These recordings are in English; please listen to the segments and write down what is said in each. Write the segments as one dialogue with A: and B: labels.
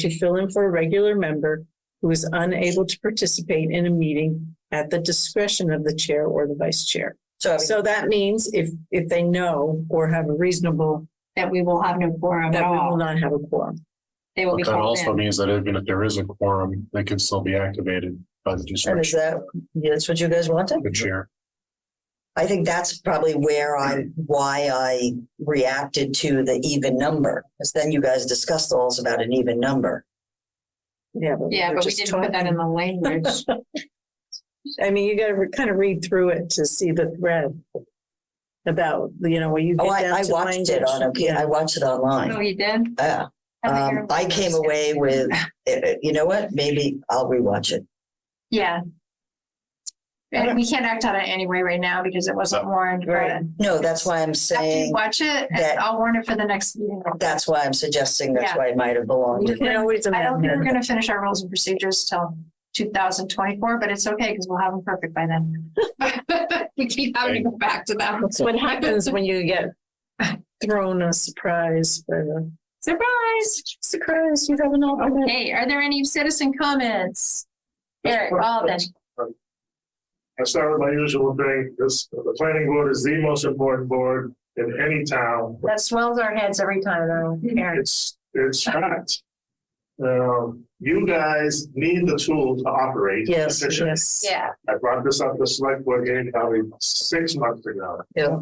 A: to fill in for a regular member who is unable to participate in a meeting at the discretion of the chair or the vice chair.
B: So
A: So that means if, if they know or have a reasonable,
C: that we will have no quorum at
A: that we will
C: all.
A: not have a quorum.
C: They will
D: But
C: be
D: that
C: called
D: also
C: in.
D: means that even if there is a quorum, they could still be activated by the
B: and is
D: discretion
B: that, yeah, that's what you guys wanted?
D: of the chair.
B: I think that's probably where I, why I reacted to the even number. Because then you guys discussed those about an even number.
A: Yeah, but
C: Yeah,
A: we're
C: but we
A: just
C: didn't put that
A: talking.
C: in the language.
A: I mean, you gotta kind of read through it to see the thread about, you know, when you
B: Oh,
A: get
B: I,
A: down
B: I
A: to
B: watched it
A: language.
B: on, okay,
A: Yeah.
B: I watched it
C: Oh,
B: online.
C: you did?
B: Yeah.
C: think
B: Um,
C: you're-
B: I came away with, eh, eh, you know what? Maybe I'll rewatch it.
C: Yeah. And we can't act on it anyway right now because it wasn't warned,
A: Right.
C: but
B: No, that's why I'm
C: after you
B: saying,
C: watch it,
B: that-
C: and I'll warn it for the next meeting.
B: that's why I'm suggesting that's
C: Yeah.
B: why it might have belonged.
A: You can always
C: I don't
A: amend
C: think we're
A: it.
C: gonna finish our rules and procedures till two thousand twenty-four, but it's okay because we'll have them perfect by then. We keep having to go back to them.
A: That's what happens when you get thrown a surprise, by the
C: Surprise!
A: surprise, you have an alternate.
C: Okay, are there any citizen comments? Eric, Alden,
E: I start with my usual thing, this, the planning board is the most important board in any town.
C: that swells our heads every time, though, Eric.
E: It's, it's fact. Um, you guys need the tool to operate.
A: Yes,
E: efficiently.
A: yes.
C: Yeah,
E: I brought this up to select board meeting probably six months ago.
B: Yeah.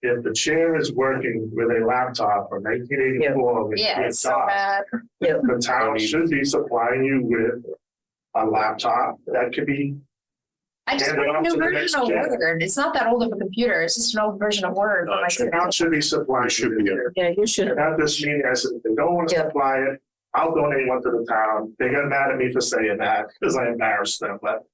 E: If the chair is working with a laptop from nineteen eighty-four. with
C: yeah,
E: a
C: it's so uh,
E: dot,
C: bad.
E: The town should be supplying you with a laptop that could be,
C: I just
E: Hand
C: want
E: it
C: a
E: off
C: new
E: to the
C: version of
E: next gen. Oh,
C: Word. It's not that old of a computer. It's just an old version of Word. but
E: the
C: like-
E: town should be supplying.
D: It should
E: you
D: be
E: with
D: a-
E: it.
A: Yeah, you should.
E: And at this meeting, I said, if they don't want to
B: Yeah.
E: supply it, I'll donate one to the town. They got mad at me for saying that because I embarrassed them, but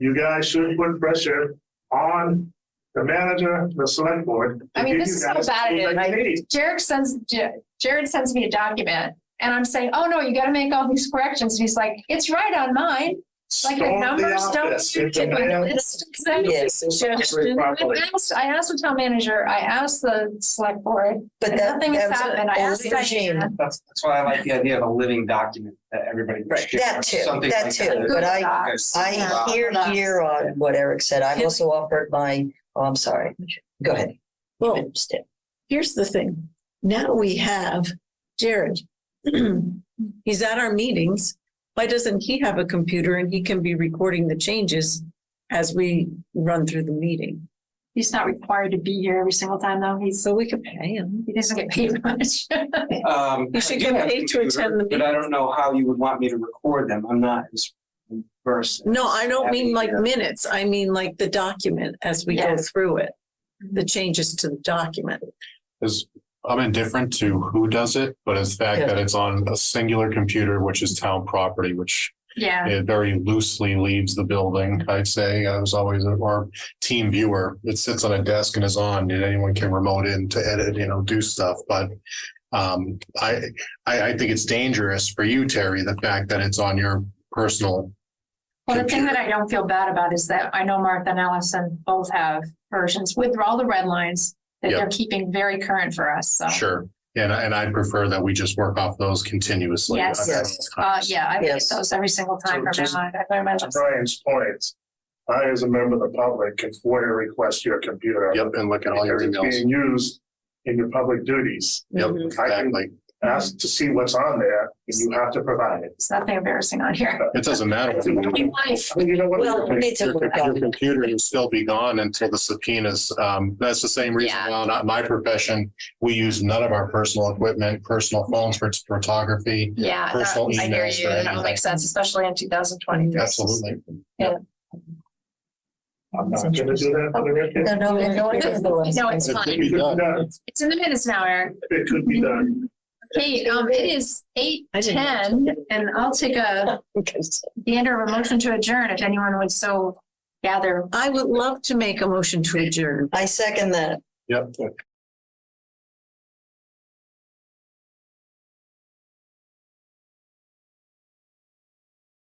E: you guys should put pressure on the manager, the select board. to
C: I mean,
E: give
C: this
E: you
C: is how
E: guys
C: bad it
E: what
C: is.
E: you need.
C: Jared sends, J- Jared sends me a document and I'm saying, oh no, you gotta make all these corrections. And he's like, it's right on mine. Like the
E: Storm
C: numbers
E: office.
C: don't.
E: If the man
C: It's- exactly.
B: Yes,
E: operates properly.
C: I asked, I asked the town manager, I asked the select board,
B: But that,
C: nothing has
B: that's
C: happened. I asked
B: a regime.
C: Diana.
F: That's, that's why I like the idea of a living document that everybody. can
B: Right.
F: share,
B: That too,
F: something
B: that
F: like
B: too,
F: that.
B: but I-
C: Google Docs.
B: I
F: Yeah.
B: hear, hear on what Eric said. I also offered my, oh, I'm sorry. Go ahead.
A: Well,
B: Understand.
A: here's the thing. Now we have Jared. He's at our meetings. Why doesn't he have a computer and he can be recording the changes as we run through the meeting?
C: He's not required to be here every single time though. He's,
A: So we could pay him.
C: he doesn't get paid much.
F: Um,
A: You should
F: I do
A: get
F: have a
A: paid to
F: computer,
A: attend the
F: But I don't know how you would want me to record them. I'm not as versed.
A: No, I don't mean like minutes. I mean like the document as we go
C: Yes.
A: through it, the changes to the document.
D: Is, I'm indifferent to who does it, but it's the fact
B: Yeah.
D: that it's on a singular computer, which is town property, which
C: Yeah.
D: it very loosely leaves the building, I'd say. I was always, or team viewer, it sits on a desk and is on, and anyone can remote in to edit, you know, do stuff, but um, I, I, I think it's dangerous for you, Terry, the fact that it's on your personal.
C: Well, the thing that
D: computer.
C: I don't feel bad about is that I know Martha and Allison both have versions with all the red lines that
D: Yeah.
C: they're keeping very current for us, so.
D: Sure. And, I- and I'd prefer that we just work off those continuously.
C: Yes.
B: Yes.
C: Uh, yeah, I get
B: Yes.
C: those every single time
E: So
C: from
E: just-
C: now on. I learn my
E: To
C: lesson.
E: Brian's point, I as a member of the public can FOIA request your computer.
D: Yep, and look at all your
E: Because it's
D: emails.
E: being used in your public duties.
D: Yep,
C: Mm-hmm.
E: I can-
D: exactly.
E: Ask to see what's on there, and you have to provide it.
C: There's nothing embarrassing on here.
D: It doesn't matter. if you-
C: My life.
E: I mean, you know what?
B: Well, me too.
D: Your your computer will still be gone until the subpoenas. Um, that's the same reason
C: Yeah.
D: why not my profession. We use none of our personal equipment, personal phones for photography.
C: Yeah, that-
D: Personal
C: I hear
D: emails
C: you.
D: or
C: That
D: anything.
C: makes sense, especially in two thousand twenty-three.
D: Absolutely.
E: I'm not gonna do that for the record.
B: No, no, no, no, no, no.
C: No, it's
D: It could
C: fine.
D: be
E: It could be
D: done.
E: done.
C: It's in the minutes now, Eric.
E: It could be done.
C: Hey, um, it is eight
A: I didn't-
C: ten and I'll take a, the end of a motion to adjourn if anyone would so gather
A: I would love to make a motion to adjourn.
B: I second that.
D: Yep.